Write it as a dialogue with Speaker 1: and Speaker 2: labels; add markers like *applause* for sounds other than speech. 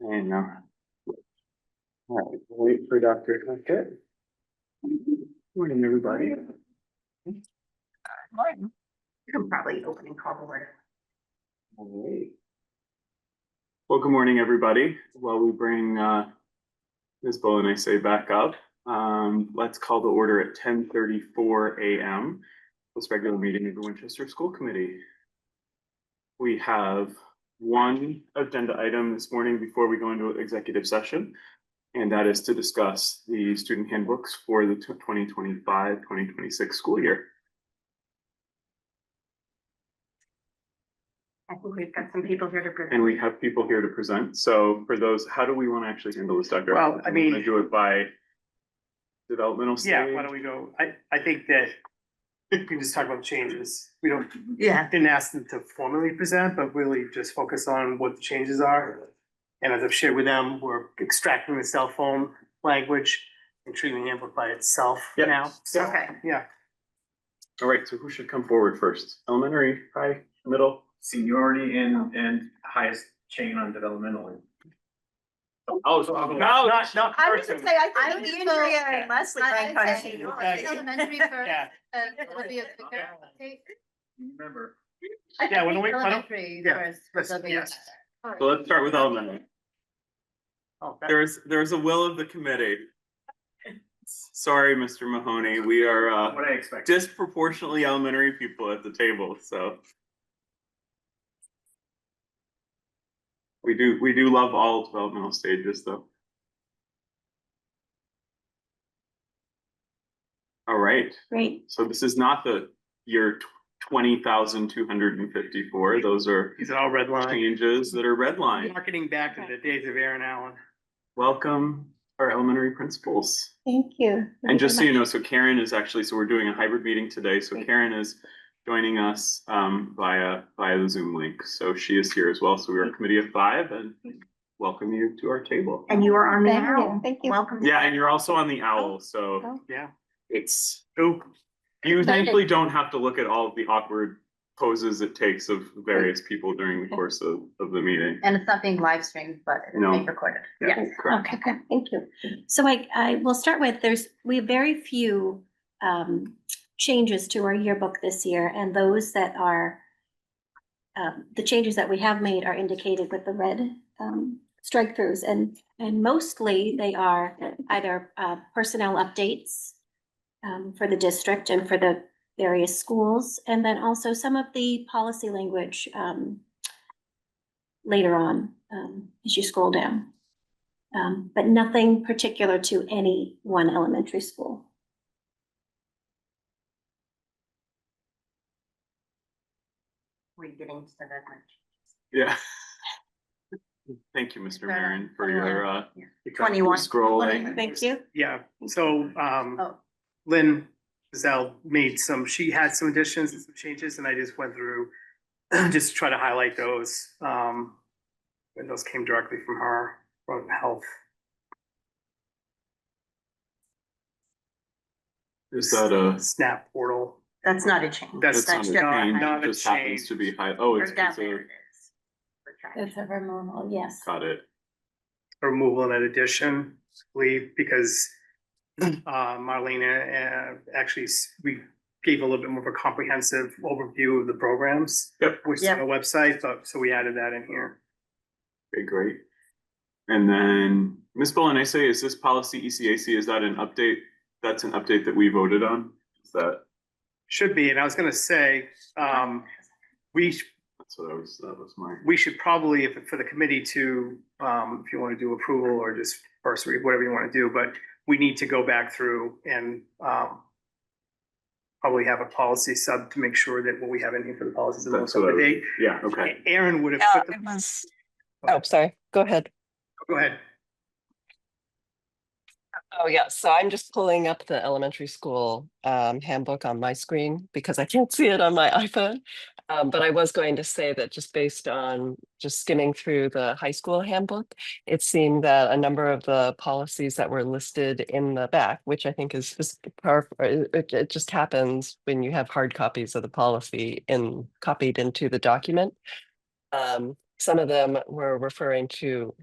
Speaker 1: you know. All right, we'll wait for Dr. Hackett. Morning, everybody.
Speaker 2: Morning. You can probably open and call the word.
Speaker 1: All right. Well, good morning, everybody. While we bring uh, Ms. Bowen, I say back up, um, let's call the order at ten thirty-four AM. This regular meeting of the Winchester School Committee. We have one agenda item this morning before we go into executive session. And that is to discuss the student handbooks for the 2025-2026 school year.
Speaker 2: I think we've got some people here to present.
Speaker 1: And we have people here to present, so for those, how do we want to actually handle this, Dr.?
Speaker 3: Well, I
Speaker 1: Do we wanna
Speaker 3: mean-
Speaker 1: Do it by developmental stage?
Speaker 3: Yeah, why don't we go, I, I think that we can just talk about changes. We don't,
Speaker 2: Yeah.
Speaker 3: didn't ask them to formally present, but really just focus on what the changes are. And as I've shared with them, we're extracting the cell phone language and treating the handbook by itself
Speaker 1: Yep.
Speaker 3: now. So,
Speaker 2: Okay.
Speaker 3: yeah,
Speaker 1: All right, so who should come forward first? Elementary, high, middle?
Speaker 4: seniority and, and highest chain on developmentally.
Speaker 1: Oh, so I'll
Speaker 3: No, not, not
Speaker 5: I was
Speaker 3: person.
Speaker 5: gonna say, I
Speaker 2: I
Speaker 5: think
Speaker 2: would
Speaker 5: Andrea
Speaker 2: vote-
Speaker 5: and Leslie
Speaker 2: I-
Speaker 5: might
Speaker 2: I'd
Speaker 5: kind of
Speaker 2: say
Speaker 5: see
Speaker 2: no.
Speaker 5: elementary first,
Speaker 3: Yeah,
Speaker 5: and it'll be a bigger. okay?
Speaker 4: Remember,
Speaker 5: I
Speaker 3: Yeah, why
Speaker 5: think
Speaker 3: don't we- why don't-
Speaker 5: Elementary
Speaker 3: yeah,
Speaker 5: first.
Speaker 3: let's-
Speaker 5: it'll be a-
Speaker 3: yes.
Speaker 1: So let's start with elementary.
Speaker 3: oh, that-
Speaker 1: There is, there is a will of the committee. Sorry, Mr. Mahoney, we are uh,
Speaker 4: what I expected.
Speaker 1: disproportionately elementary people at the table, so. We do, we do love all developmental stages, though. All right,
Speaker 2: Great.
Speaker 1: so this is not the year twenty thousand two hundred and fifty-four, those are
Speaker 3: these are all red line.
Speaker 1: changes that are redlined.
Speaker 3: Marketing back to the days of Aaron Allen.
Speaker 1: Welcome our elementary principals.
Speaker 2: Thank you.
Speaker 1: And just so you know, so Karen is actually, so we're doing a hybrid meeting today, so Karen is joining us um via via the Zoom link. So she is here as well, so we are a committee of five and welcome you to our table.
Speaker 2: And you are on the
Speaker 5: Thank you,
Speaker 2: now.
Speaker 5: thank you.
Speaker 2: Welcome.
Speaker 1: Yeah, and you're also on the owl, so
Speaker 5: Oh.
Speaker 3: Yeah.
Speaker 1: it's,
Speaker 3: Ooh,
Speaker 1: you thankfully don't have to look at all of the awkward poses it takes of various people during the course of of the meeting.
Speaker 5: And it's not being live streamed, but it's
Speaker 1: No.
Speaker 5: being recorded.
Speaker 1: Yeah, correct.
Speaker 6: Okay, good, thank you. So I, I will start with, there's, we have very few um, changes to our yearbook this year, and those that are um, the changes that we have made are indicated with the red um, strike throughs, and, and mostly they are either uh, personnel updates um, for the district and for the various schools, and then also some of the policy language um, later on, um, as you scroll down. Um, but nothing particular to any one elementary school.
Speaker 2: We're getting to the red line.
Speaker 1: Yeah. Thank you, Mr. Marin, for your uh
Speaker 2: Twenty-one.
Speaker 1: scrolling.
Speaker 6: Thank you.
Speaker 3: yeah, so, um.
Speaker 5: Oh,
Speaker 3: Lynn Zell made some, she had some additions and some changes, and I just went through, *clears throat* just to try to highlight those. Um, and those came directly from her, from health.
Speaker 1: Is that a?
Speaker 3: Snap portal.
Speaker 2: That's not a change.
Speaker 3: That's
Speaker 2: That's
Speaker 1: not a change,
Speaker 2: different.
Speaker 1: it
Speaker 3: not a
Speaker 1: just happens
Speaker 3: change.
Speaker 1: to be high, oh,
Speaker 2: Or
Speaker 1: it's,
Speaker 2: down
Speaker 1: it's
Speaker 2: there
Speaker 1: a,
Speaker 2: it is. We're trying.
Speaker 6: That's ever normal, yes.
Speaker 1: got it,
Speaker 3: removal and addition, I believe, because *clears throat* uh, Marlena, uh, actually, s- we gave a little bit more of a comprehensive overview of the programs.
Speaker 1: Yep.
Speaker 3: Which is on the website, but, so we added that in here.
Speaker 1: okay, great. And then, Ms. Bowen, I say, is this policy E ECAC, is that an update? That's an update that we voted on, is that,
Speaker 3: Should be, and I was gonna say, um, we, sh-
Speaker 1: that's what I was, that was my.
Speaker 3: we should probably, if, for the committee to, um, if you wanna do approval or just first read, whatever you wanna do, but we need to go back through and, um, probably have a policy sub to make sure that what we have in here for the policies is
Speaker 1: That's
Speaker 3: most up
Speaker 1: what I
Speaker 3: to
Speaker 1: was-
Speaker 3: date.
Speaker 1: Yeah, okay,
Speaker 3: Aaron would have
Speaker 7: Yeah,
Speaker 3: put
Speaker 7: it
Speaker 3: the,
Speaker 7: was, oh, sorry, go ahead.
Speaker 3: go ahead.
Speaker 7: Oh, yeah, so I'm just pulling up the elementary school um, handbook on my screen because I can't see it on my iPhone. Um, But I was going to say that just based on just skimming through the high school handbook, it seemed that a number of the policies that were listed in the back, which I think is just power- or it it- it just happens when you have hard copies of the policy in copied into the document. Um, Some of them were referring to